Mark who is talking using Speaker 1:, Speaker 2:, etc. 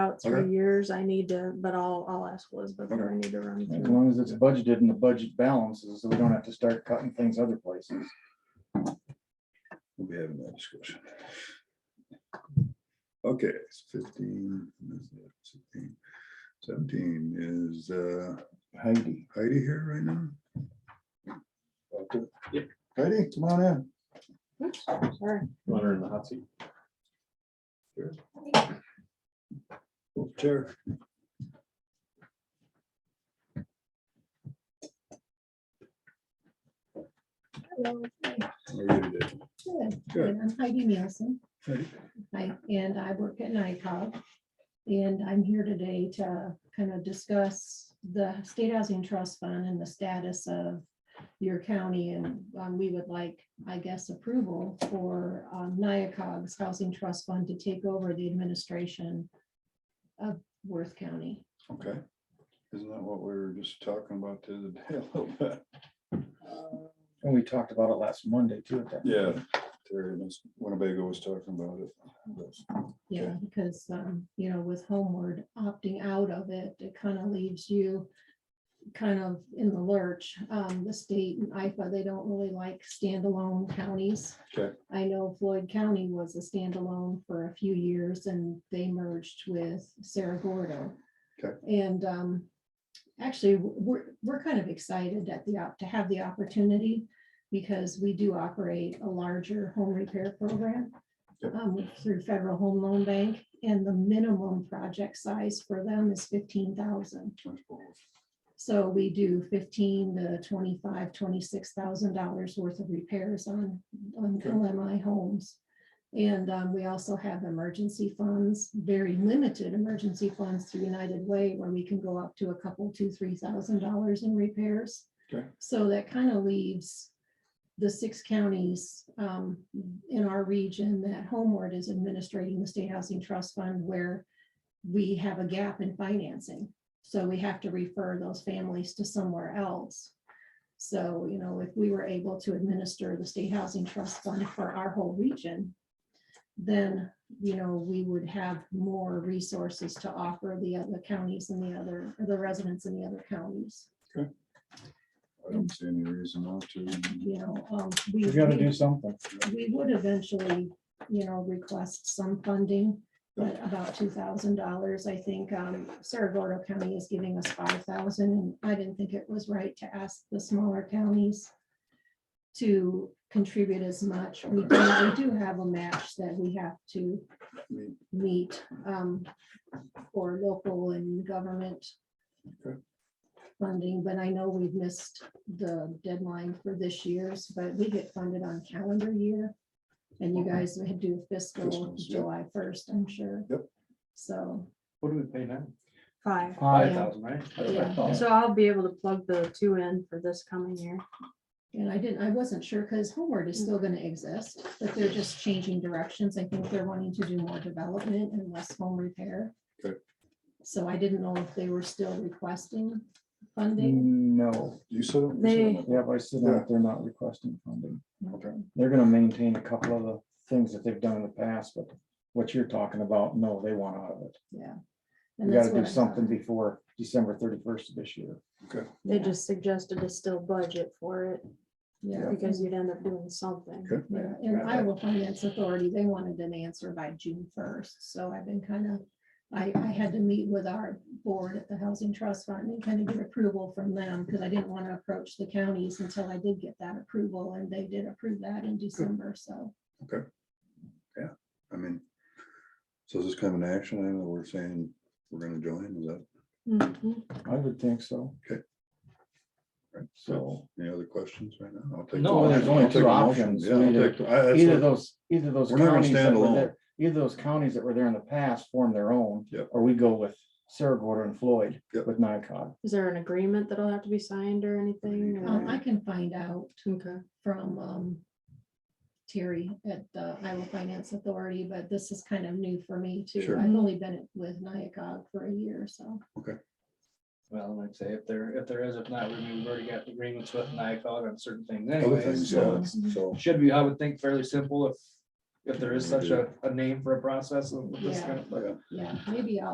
Speaker 1: out three
Speaker 2: Okay.
Speaker 1: years, I need to, but I'll, I'll ask Liz before I need to run
Speaker 2: As
Speaker 1: through.
Speaker 2: long as it's budgeted and the budget balances, so we don't have to start cutting things other places.
Speaker 3: We'll be having that discussion. Okay, it's fifteen, is it 16? 17 is uh,
Speaker 2: Heidi.
Speaker 3: Heidi here right now? Yep. Heidi, come on in.
Speaker 1: Oops, Sorry,
Speaker 4: Want her in the hot seat?
Speaker 3: Chair.
Speaker 5: Hello, hi.
Speaker 3: How are you today?
Speaker 5: Good,
Speaker 3: Good.
Speaker 5: good. I'm Heidi Nielsen.
Speaker 3: Heidi.
Speaker 5: I, and I work at NICOG. And I'm here today to kind of discuss the State Housing Trust Fund and the status of your county. And um, we would like, I guess, approval for um, NICOG's Housing Trust Fund to take over the administration of Worth County.
Speaker 3: Okay. Isn't that what we were just talking about the other day a little bit?
Speaker 2: And we talked about it last Monday too. at that-
Speaker 3: Yeah, Terry, and this Winnebago was talking about it. but-
Speaker 5: Yeah, because, um, you know, with Homeward opting out of it, it kind of leaves you kind of in the lurch. Um, the state and IFA, they don't really like standalone counties.
Speaker 3: Okay.
Speaker 5: I know Floyd County was a standalone for a few years and they merged with Sarah Gordo.
Speaker 3: Okay.
Speaker 5: And, um, actually, we're, we're kind of excited at the, op- to have the opportunity because we do operate a larger home repair program um, through Federal Home Loan Bank, and the minimum project size for them is fifteen thousand. So we do fifteen to twenty-five, twenty-six thousand dollars worth of repairs on, on
Speaker 3: Okay.
Speaker 5: LMI homes. And um, we also have emergency funds, very limited emergency funds through United Way, where we can go up to a couple, two, three thousand dollars in repairs.
Speaker 3: Okay.
Speaker 5: So that kind of leaves the six counties um, in our region that Homeward is administrating the State Housing Trust Fund, where we have a gap in financing. So we have to refer those families to somewhere else. So, you know, if we were able to administer the state housing trust fund for our whole region, then, you know, we would have more resources to offer the other counties and the other, the residents in the other counties,
Speaker 3: I don't see any reason not to.
Speaker 5: you know. um,
Speaker 2: We gotta do something.
Speaker 5: we would eventually, you know, request some funding, but about two thousand dollars, I think, um, Sarah Gordo County is giving us five thousand, and I didn't think it was right to ask the smaller counties to contribute as much. We do, we do have a match that we have to
Speaker 3: Meet.
Speaker 5: meet, um, for local and government
Speaker 3: Okay.
Speaker 5: funding, but I know we've missed the deadline for this year's, but we get funded on calendar year. And you guys would do fiscal
Speaker 3: Fiscals, yeah.
Speaker 5: July first, I'm sure.
Speaker 3: Yep.
Speaker 5: So,
Speaker 4: What do we pay now?
Speaker 1: five.
Speaker 2: Five
Speaker 5: Yeah.
Speaker 2: thousand, right? That's what I
Speaker 5: Yeah.
Speaker 2: thought.
Speaker 1: So I'll be able to plug the two in for this coming year.
Speaker 5: and I didn't, I wasn't sure, because Homeward is still gonna exist, but they're just changing directions. I think they're wanting to do more development and less home repair.
Speaker 3: Okay.
Speaker 5: So I didn't know if they were still requesting funding.
Speaker 2: No,
Speaker 3: You said. it? You said
Speaker 1: They-
Speaker 3: it.
Speaker 2: yeah, but I said that they're not requesting funding.
Speaker 3: Okay.
Speaker 2: They're gonna maintain a couple of the things that they've done in the past, but what you're talking about, no, they want out of it.
Speaker 5: Yeah. And
Speaker 2: We
Speaker 5: that's
Speaker 2: gotta do
Speaker 5: what I thought.
Speaker 2: something before December thirty-first of this year.
Speaker 1: They
Speaker 5: Yeah.
Speaker 1: just suggested to still budget for it
Speaker 5: Yeah.
Speaker 1: because you'd end up doing something.
Speaker 3: Okay.
Speaker 5: Yeah, and Iowa Finance Authority, they wanted an answer by June first, so I've been kind of, I, I had to meet with our board at the Housing Trust Fund and kind of get approval from them, because I didn't want to approach the counties until I did get that approval, and they did approve that in December, so.
Speaker 3: I mean, so is this kind of an action item that we're saying we're gonna join, is that,
Speaker 1: Mhm.
Speaker 2: I would think so.
Speaker 3: Okay.
Speaker 2: So.
Speaker 3: any other questions right now? I'll take
Speaker 4: No,
Speaker 3: the-
Speaker 4: Well, there's
Speaker 3: I'll
Speaker 2: only
Speaker 3: take
Speaker 2: two
Speaker 3: the motion.
Speaker 2: options.
Speaker 3: Yeah, I'll
Speaker 2: Either-
Speaker 3: take the- I- that's
Speaker 2: Either
Speaker 3: what-
Speaker 2: those, either those
Speaker 3: We're not gonna
Speaker 2: counties, that
Speaker 3: stand
Speaker 2: were
Speaker 3: alone.
Speaker 2: there- either those counties that were there in the past form their own.
Speaker 3: Yep.
Speaker 2: Or we go with Sarah Gorder and Floyd
Speaker 3: Yep.
Speaker 2: with NICOG.
Speaker 1: Is there an agreement that'll have to be signed or anything?
Speaker 5: Um,
Speaker 1: or-
Speaker 5: I can find out
Speaker 1: Okay.
Speaker 5: from, um, Terry at the Iowa Finance Authority, but this is kind of new for me too.
Speaker 3: Sure.
Speaker 5: I've only been with NIACOG for a year, so.
Speaker 4: Well, I'd say if there, if there is, if not, we've already got agreements with NICOG on certain things
Speaker 3: Other
Speaker 4: anyway.
Speaker 3: things, yeah,
Speaker 4: So
Speaker 3: that's- so,
Speaker 4: should be, I would think fairly simple if, if there is such a, a name for a process. of this kind of-
Speaker 3: yeah.
Speaker 5: Yeah, maybe I'll